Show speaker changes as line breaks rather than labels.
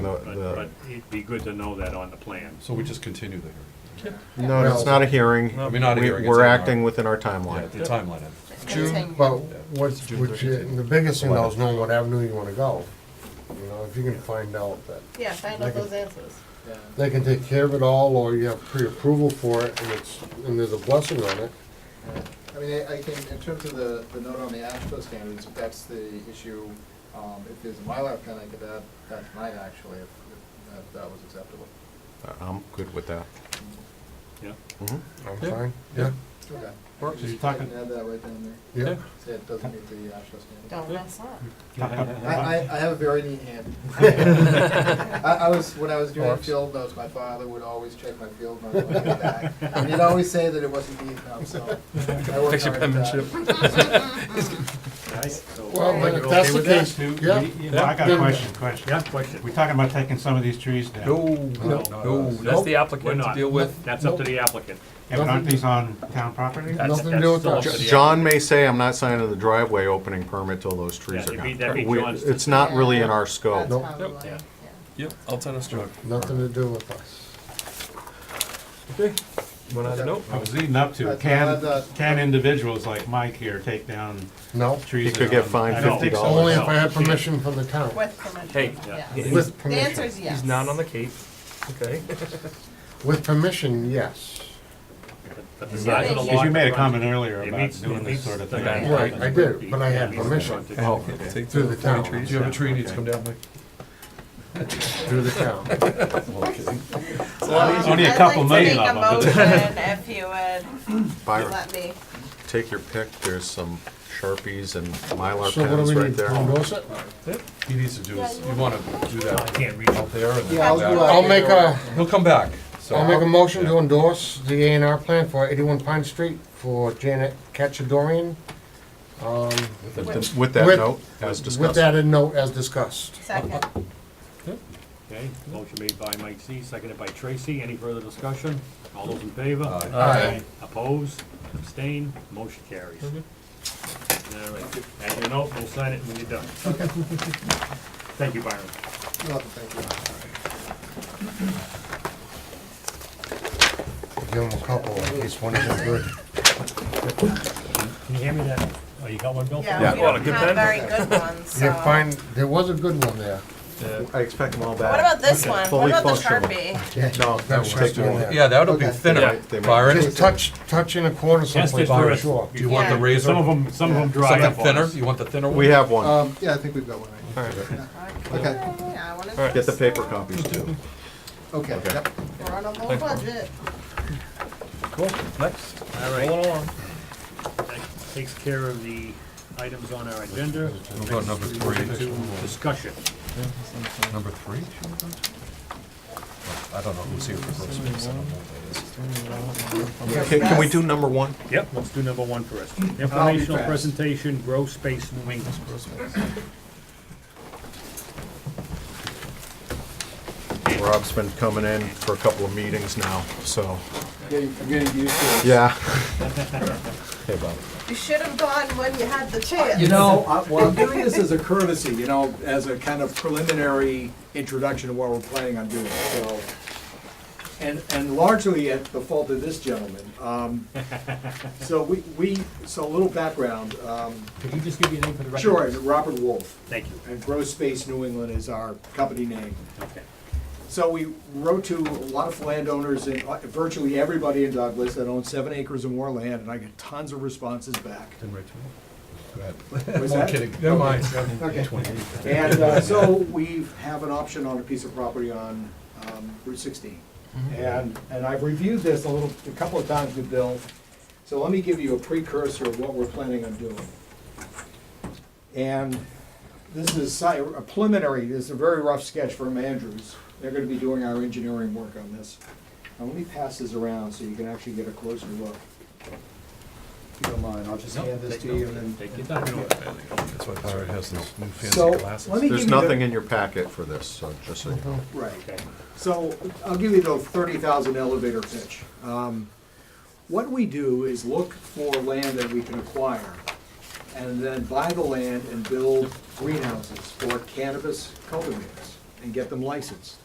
the,
But,
the,
but it'd be good to know that on the plan.
So we just continue the hearing.
no, it's not a hearing.
I mean, not a
We-
hearing, it's
We're
a-
acting within our
Yeah,
timeline.
the timeline item.
Continue.
June, but what's,
June
which,
30th.
and the biggest thing though is knowing what avenue you wanna go. You know, if you can find out that,
Yeah, find out those answers.
they can take care of it all, or you have pre-approval for it, and it's, and there's a blessing on it.
I mean, I, I can, in terms of the, the note on the ASHTO standards, if that's the issue, um, if there's a Mylar pen, I could add that tonight, actually, if, if that, that was acceptable.
I'm good with that.
Yeah,
Mhm.
Mm-hmm. I'm
Yeah.
fine, yeah,
Okay.
Works.
Just-
You're talking-
I can add that right down there,
yeah.
say it doesn't meet the ASHTO standards.
Don't mess up.
I, I, I have a very neat hand. I, I was, when I was doing field notes, my father would always check my field notes when I got back, and he'd always say that it wasn't neat enough, so. Fix your penmanship.
Nice. So-
Well,
Right.
if that's the case,
Do- do
yeah.
we- yeah, I got a
Then-
question, question.
Yeah, question.
We talking about taking some of these trees down?
uh,
No, no,
That's the
We're
applicant to
not.
deal with.
That's up to the applicant.
Yeah, but aren't these on town property?
That's-
Nothing to
that's
do with
still up
us.
to the
John may say, I'm not signing the driveway opening permit till those trees
Yeah,
are
it'd be-
gone.
that'd be
We-
John's
It's not really in our
That's
scope.
how we
Nope.
like
Yeah.
it,
Yep, Altoona Street.
Nothing to do with us.
One other note?
I was leading up to,
That's not- uh,
can,
that's-
can individuals like Mike here take down
No,
trees?
He could
that are
get
on-
fined
I don't think so.
$50.
only if I had permission from the town,
With permission.
Hey.
Yeah.
Yeah.
with
The answer
permission,
is yes.
He's not on the Cape, okay?
with permission, yes.
But the size of the
Because
lot
you made a
runs-
comment earlier
It
about
meets- it
doing this
meets
sort of
the
thing.
guidelines.
Right, I did, but I had
It meets the
permission.
frontage.
Oh,
Take
Through the
forty
town.
trees
Do you have
down.
a tree needs to come down, Mike?
through the town.
Only a couple million of them, but-
I'd like to make a motion if you would
Byron,
let me.
take your pick. There's some Sharpies and Mylar
So what do
pens
we
right
need,
there.
to endorse it?
He needs to do, his- you wanna do
I
that
can't read it.
out there and then
Yeah, I'll
come
do
back.
that.
I'll make a,
He'll come back, so.
I'll make a motion to endorse the A and R plan for eighty-one Pine Street for Janet Cachadorian. Um,
With that
With-
note, as
with
discussed.
that in note as discussed.
Second.
Okay, motion made by Mike C, seconded by Tracy. Any further discussion? All those in favor?
Aye.
Opposed, abstain, motion carries. All right, and your note, we'll sign it when you're done. Thank you, Byron.
You'll have to thank you.
Give him a couple, at least one of them good.
Can you hand me that? Oh, you got one, Bill?
Yeah, we
Well, a
don't
good
have
pen?
very good ones, so.
Yeah, fine, there was a good one there.
I expect them all back.
What about this one? What
Fully
about the
functional.
Sharpie?
No,
That
that was
was
just
just
one.
one.
Yeah, that would be
Okay.
thinner,
Yeah, they might-
Byron.
Just touch, touch in a corner
Yes,
someplace,
there's
for
there is.
sure.
Do you want the
Yeah.
razor?
Some of them, some of them dry
Something
up on
thinner?
us.
You want the thinner one?
We have
Uh,
one.
Um, yeah, I think we've got one right Okay,
Yeah, I wanna.
Get the paper copies too.
okay,
Okay.
yep.
We're on a low budget.
Cool, next.
All right. That takes care of the items on our agenda.
We'll go number three.
Discussion.
Number three? should we go to? I don't know who's here for first base, I don't know who that is.
Okay, Can we do number one?
Yep, let's do number one first.
I'll be
Informational
fast.
presentation, grow space, New England.
Rob's been coming in for a couple of meetings now, so,
Getting- I'm getting used to it.
yeah. Hey, Bob.
You should have gone when you had the chance.
You know, I- well, I'm doing this as a courtesy, you know, as a kind of preliminary introduction to what we're planning on doing, so. And, and largely at the fault of this gentleman. Um, So we, we, so a little background. um,
Could you just give your name for the record?
Sure, Robert Wolf,
Thank you.
and Grow Space New England is our company name.
Okay.
So we wrote to a lot of landowners and uh, virtually everybody in Douglas that owns seven acres or more land, and I get tons of responses back. Was
I'm
that-
kidding, never mind.
Okay. And uh, so we have an option on a piece of property on um, Route 16. And, and I've reviewed this a little, a couple of times with Bill, so let me give you a precursor of what we're planning on doing. And this is si- a preliminary, this is a very rough sketch from Andrews. They're gonna be doing our engineering work on this. Now, let me pass this around so you can actually get a closer look. If you don't mind, I'll just hand this to you and then
Take your time.
That's why Byron has those new
So,
fancy glasses.
let me give
There's
you the-
nothing in your packet for this, so just so you know.
Right.
Okay.
So I'll give you the thirty thousand elevator pitch. Um, What we do is look for land that we can acquire and then buy the land and build greenhouses for cannabis cultivators. and get them licensed.